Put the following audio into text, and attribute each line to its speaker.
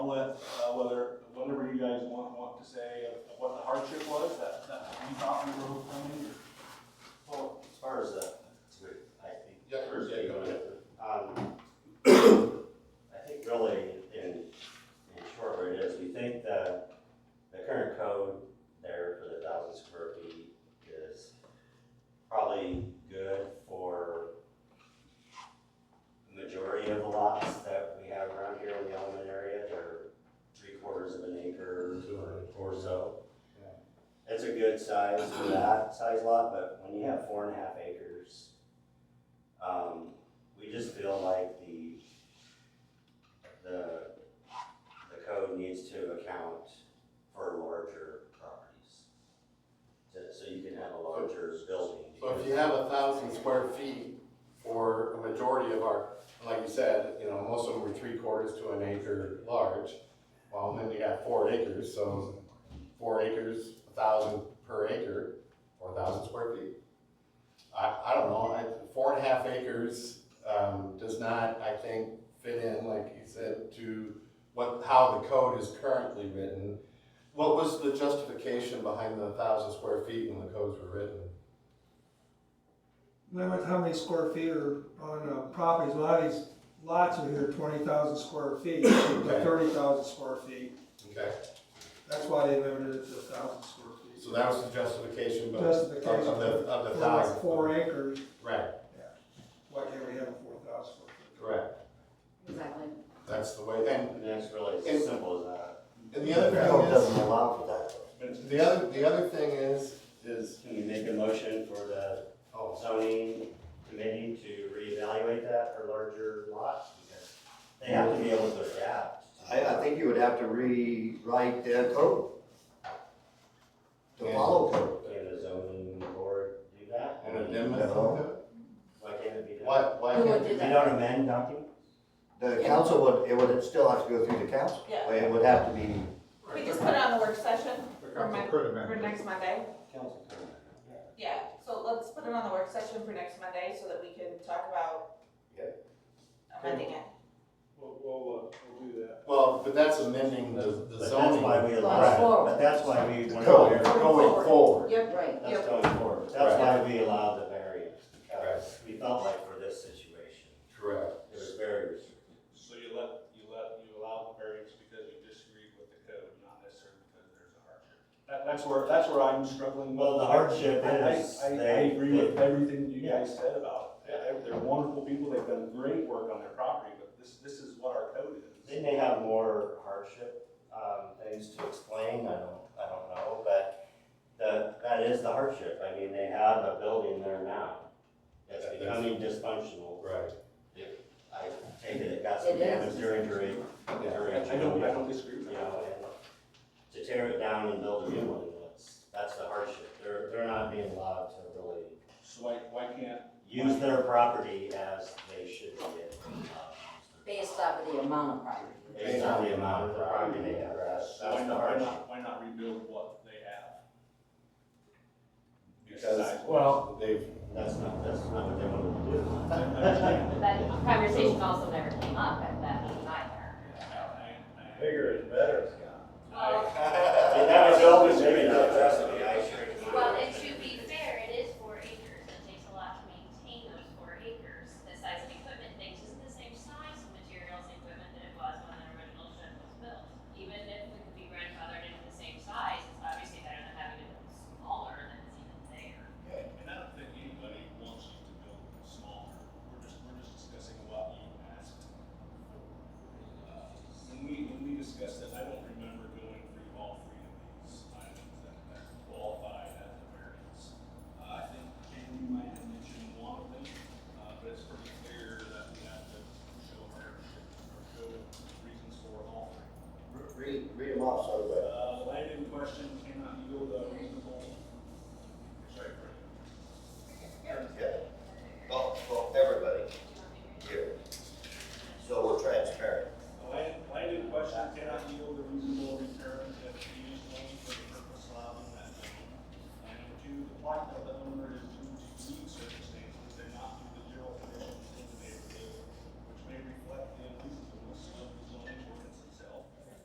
Speaker 1: let, uh, whether, whatever you guys want, want to say of of what the hardship was, that, that you thought we were overcoming, or?
Speaker 2: Well, as far as, uh, to it, I think.
Speaker 3: Yeah, yeah, go ahead.
Speaker 2: Um, I think really, in, in short, what it is, we think that the current code there for the thousand square feet is probably good for the majority of the lots that we have around here in the Elman area, they're three quarters of an acre or- or so. It's a good size for that size lot, but when you have four and a half acres, um, we just feel like the, the, the code needs to account for larger properties. So- So you can have a larger building.
Speaker 3: So if you have a thousand square feet for a majority of our, like you said, you know, most of them were three quarters to an acre large. Well, then you got four acres, so four acres, a thousand per acre, or a thousand square feet. I, I don't know, I, four and a half acres, um, does not, I think, fit in, like you said, to what, how the code is currently written. What was the justification behind the thousand square feet when the codes were written?
Speaker 4: Limit how many square feet are on uh, properties, a lot of these lots are here twenty thousand square feet, thirty thousand square feet.
Speaker 3: Okay.
Speaker 4: That's why they limited it to thousand square feet.
Speaker 3: So that was the justification, but of of the,
Speaker 4: Justification
Speaker 3: of the
Speaker 4: for
Speaker 3: thousand.
Speaker 4: like four acres,
Speaker 3: Right,
Speaker 4: why can't we have a four thousand square foot?
Speaker 3: correct.
Speaker 5: Exactly.
Speaker 3: That's the way, and,
Speaker 2: And that's really as simple as that.
Speaker 3: and the other
Speaker 2: The code
Speaker 3: thing
Speaker 2: doesn't allow for that.
Speaker 3: is, the other, the other thing is, is,
Speaker 2: Can we make a motion for the
Speaker 3: oh,
Speaker 2: zoning committee to reevaluate that for larger lots? Because They have to be able to adapt.
Speaker 6: I, I think you would have to rewrite the code. To follow code.
Speaker 2: Can the zoning board do that?
Speaker 3: an amendment, to
Speaker 2: Why can't it be
Speaker 3: it?
Speaker 2: done?
Speaker 3: why, why
Speaker 5: Who
Speaker 3: can't
Speaker 5: would
Speaker 3: we
Speaker 5: do
Speaker 2: We
Speaker 5: that?
Speaker 2: don't amend documents?
Speaker 6: The council would, it would still have to go through the council.
Speaker 5: Yeah.
Speaker 6: It would have to be,
Speaker 5: We just put it on the work session for my, for next Monday.
Speaker 2: Council comment.
Speaker 5: Yeah, so let's put it on the work session for next Monday so that we can talk about
Speaker 6: Yeah.
Speaker 5: amending it.
Speaker 1: We'll, we'll, uh, we'll do that.
Speaker 3: Well, but that's amending the, the
Speaker 2: But that's
Speaker 3: zoning
Speaker 2: why
Speaker 3: going
Speaker 2: we
Speaker 7: Right.
Speaker 2: allow, but that's why we went
Speaker 3: Code.
Speaker 2: over,
Speaker 3: forward.
Speaker 5: Yep,
Speaker 2: that's
Speaker 5: Yep.
Speaker 2: going forward. That's why we allowed the variance, because we felt like for this situation,
Speaker 3: Correct.
Speaker 2: it was very restrictive.
Speaker 1: So you let, you let, you allow the variance because you disagreed with the code, not necessarily because there's a hardship. That, that's where, that's where I'm struggling. with.
Speaker 2: Well, the hardship
Speaker 1: I-
Speaker 2: is
Speaker 1: I, I, I
Speaker 2: they-
Speaker 1: agree with
Speaker 2: they-
Speaker 1: everything you guys said about it. They're- They're wonderful people, they've done great work on their property, but this, this is what our code
Speaker 2: They
Speaker 1: is.
Speaker 2: may have more hardship, um, things to explain, I don't, I don't know, but the, that is the hardship, I mean, they have a building there now. That's
Speaker 3: That- that's-
Speaker 2: becoming dysfunctional,
Speaker 3: Right.
Speaker 2: I take it, it got some
Speaker 5: It is.
Speaker 2: damage or injury,
Speaker 3: Yeah.
Speaker 2: during,
Speaker 1: I I don't, I don't disagree
Speaker 2: you
Speaker 1: with that.
Speaker 2: know, and to tear it down and build a new one, that's, that's the hardship, they're, they're not being allowed to really
Speaker 1: So why, why can't,
Speaker 2: use their property as they should be able to.
Speaker 7: Based off of the amount of property.
Speaker 2: Based on the amount of property they have, that's,
Speaker 1: so why
Speaker 2: that's the
Speaker 1: not, why
Speaker 2: hardship.
Speaker 1: not, why not rebuild what they have?
Speaker 3: Because,
Speaker 1: Besides-
Speaker 2: Oh.
Speaker 3: well, they've,
Speaker 2: That's not, that's not what they wanted to do.
Speaker 1: I understand.
Speaker 7: That conversation also never came up at that meeting either.
Speaker 1: Bigger is better,
Speaker 2: And that was always maybe not just the ice cream.
Speaker 8: Well, and to be fair, it is four acres, it takes a lot to maintain those four acres. The size of equipment, things isn't the same size of materials and equipment that it was when the original shed was built. Even if we could be grandfathered into the same size, it's obviously better than having it smaller than it's even there.
Speaker 1: And I don't think anybody wants you to build smaller, we're just, we're just discussing what you asked. Uh, When we, when we discussed it, I don't remember going through all three of these items that, that qualify as a variance. Uh, I think Ken, you might have mentioned one of them, uh, but it's pretty clear that we have to show hardship or show reasons for all three.
Speaker 6: read, read them off so that.
Speaker 1: Uh, land in question cannot yield a reasonable